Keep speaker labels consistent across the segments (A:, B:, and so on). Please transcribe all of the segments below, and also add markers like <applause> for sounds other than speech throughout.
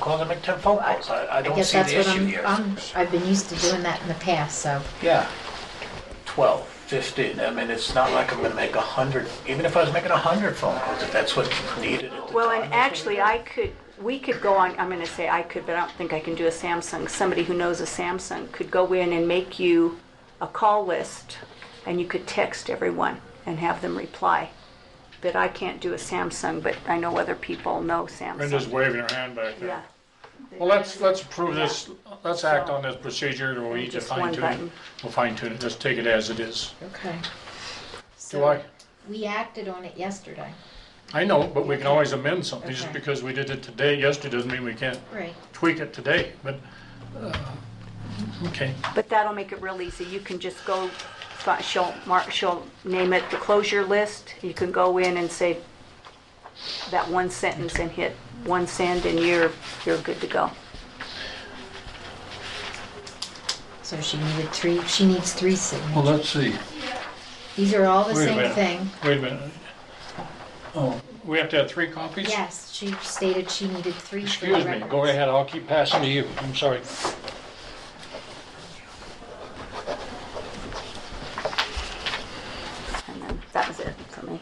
A: calls, I make ten phone calls. I, I
B: I
A: don't
B: guess
A: see
B: that's
A: the
B: what
A: issue
B: I'm,
A: here.
B: I'm, I've been used to doing that in the past, so.
A: Yeah, 12, 15. I mean, it's not like I'm gonna make a hundred, even if I was making a hundred phone calls, if that's what's needed at the
C: Well,
A: time,
C: and
A: that's what
C: actually, I could, we could go on, I'm gonna say I could, but I don't think I can do a Samsung. Somebody who knows a Samsung could go in and make you a call list, and you could text everyone and have them reply. But I can't do a Samsung, but I know other people know
D: Brenda's
C: Samsung.
D: waving her hand back there.
C: Yeah.
D: Well, let's, let's approve this, let's act
C: So-
D: on this procedure, and we'll each
C: Just
D: fine
C: one
D: tune it.
C: button.
D: We'll fine tune it, just take it as it is.
B: Okay.
D: Do I?
B: We acted on it yesterday.
D: I know, but we can always amend something, just
B: Okay.
D: because we did it today, yesterday doesn't mean we can't
B: Right.
D: tweak it today, but, uh, okay.
C: But that'll make it real easy. You can just go, fi- she'll, mark, she'll name it the closure list. You can go in and say that one sentence and hit one send, and you're, you're good to go.
B: So she needed three, she needs three
D: Well,
B: signatures.
D: let's see.
B: These are all the
D: Wait a
B: same
D: minute.
B: thing.
D: Wait a minute. Oh, we have to have three copies?
B: Yes, she stated she needed three for the
D: Excuse me, go
B: records.
D: ahead, I'll keep passing to you, I'm sorry.
C: And then that was it for me.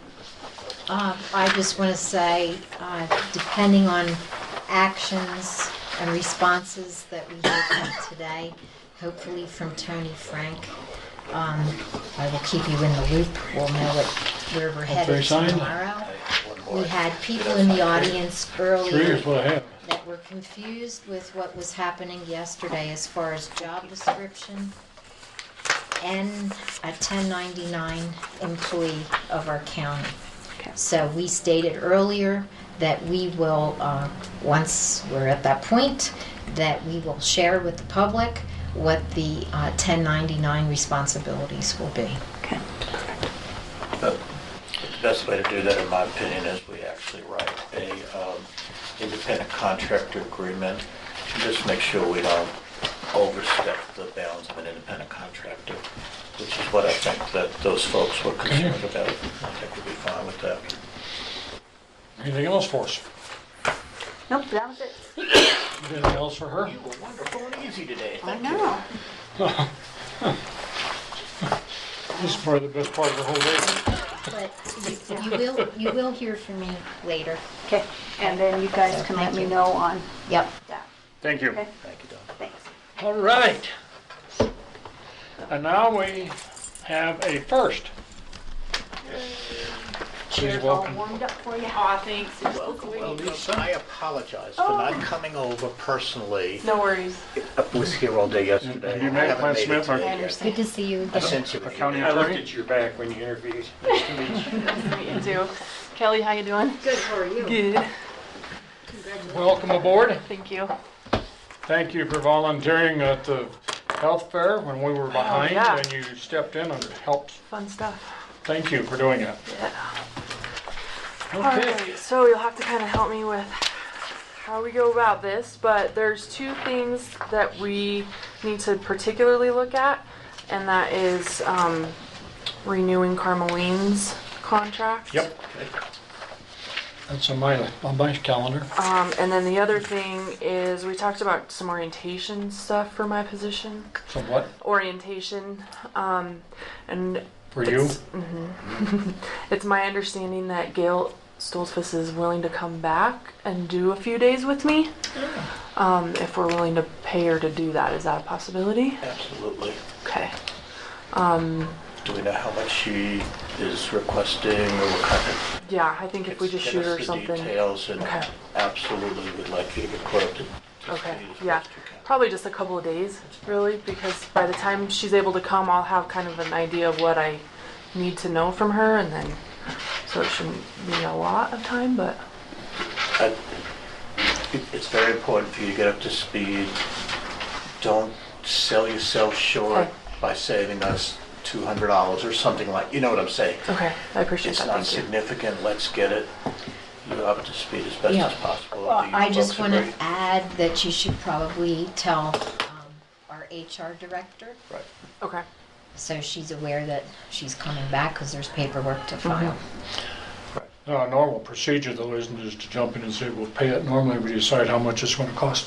B: Um, I just want to say, uh, depending on actions and responses that we have today, hopefully from Tony Frank, um, I will keep you in the loop. We'll know what, where we're headed
D: signed?
B: tomorrow.
A: One more.
B: We had people in the audience
D: Three
B: earlier
D: is what I have.
B: that were confused with what was happening yesterday as far as job description and a 1099 employee of our county.
C: Okay.
B: So we stated earlier that we will, uh, once we're at that point, that we will share with the public what the uh, 1099 responsibilities will be.
C: Okay.
A: But The best way to do that, in my opinion, is we actually write a um, independent contractor agreement to just make sure we don't overstep the bounds of an independent contractor, which is what I think that those folks were concerned about. I think we'll be fine with that.
D: Anything else for us?
C: Nope, that was it.
D: Anything else for her?
A: You were wonderful and easy today.
C: I
A: Thank you.
C: know.
D: This is probably the best part of the whole day.
B: But you you will, you will hear from me later.
C: Okay, and then you guys can let me know on
B: Yep.
C: that.
D: Thank you.
C: Okay,
A: Thank you, Don.
C: thanks.
D: All right. And now we have a first. Please
C: Chair's all
D: welcome.
C: warmed up for you.
E: Aw, thanks. It's just the way
A: Well,
E: you go.
A: Lisa, I apologize for not coming over personally.
E: Oh. No worries.
A: I was here all day yesterday.
D: Have you
A: I
D: met
A: haven't
D: Clint
A: made it
D: Smith, or-
A: today
E: I
A: yet.
E: understand.
B: Good to see you
A: I
B: again.
A: sent you. an
D: County
A: email.
F: I looked
D: attorney?
F: at your back when you interviewed. Nice to meet you.
E: Nice to meet you too. Kelly, how you doing?
B: Good, how are you?
E: Good.
D: Welcome aboard.
E: Thank you.
D: Thank you for volunteering at the health fair when we were behind
E: Oh, yeah.
D: and you stepped in and helped.
E: Fun stuff.
D: Thank you for doing that.
E: All
D: Okay.
E: right, so you'll have to kind of help me with how we go about this, but there's two things that we need to particularly look at, and that is um, renewing Carmeline's contract.
D: Yep. That's on my, on my calendar.
E: Um, and then the other thing is we talked about some orientation stuff for my position.
D: So what,
E: orientation. Um, and
D: for you?
E: It's, mhm. <laughs> It's my understanding that Gail Stoltzfus is willing to come back and do a few days with me. Um, if we're willing to pay her to do that, is that a possibility?
A: Absolutely.
E: Okay.
A: Do we know how much she is requesting or what kind of?
E: Yeah, I think if we just
A: Get
E: shoot
A: us
E: her
A: the
E: something.
A: Details and
E: Okay.
A: absolutely would like you to get quoted.
E: Okay, yeah, probably just a couple of days, really, because by the time she's able to come, I'll have kind of an idea of what I need to know from her, and then, so it shouldn't be a lot of time, but,
A: I- it- It's very important for you to get up to speed. Don't sell yourself short
E: Okay.
A: by saving us $200 or something like, you know what I'm saying?
E: okay, I appreciate
A: It's
E: that,
A: not
E: thank you.
A: significant, let's get it you up to speed as best
B: Yeah.
A: as possible.
B: Well,
A: Do you
B: I just
A: folks
B: want to
A: agree?
B: add that you should probably tell um, our HR director,
A: Right.
E: Okay,
B: so she's aware that she's coming back, because there's paperwork to file.
A: Right.
D: Uh, Now, Our normal procedure though isn't just to jump in and say we'll pay it. Normally we decide how much it's gonna cost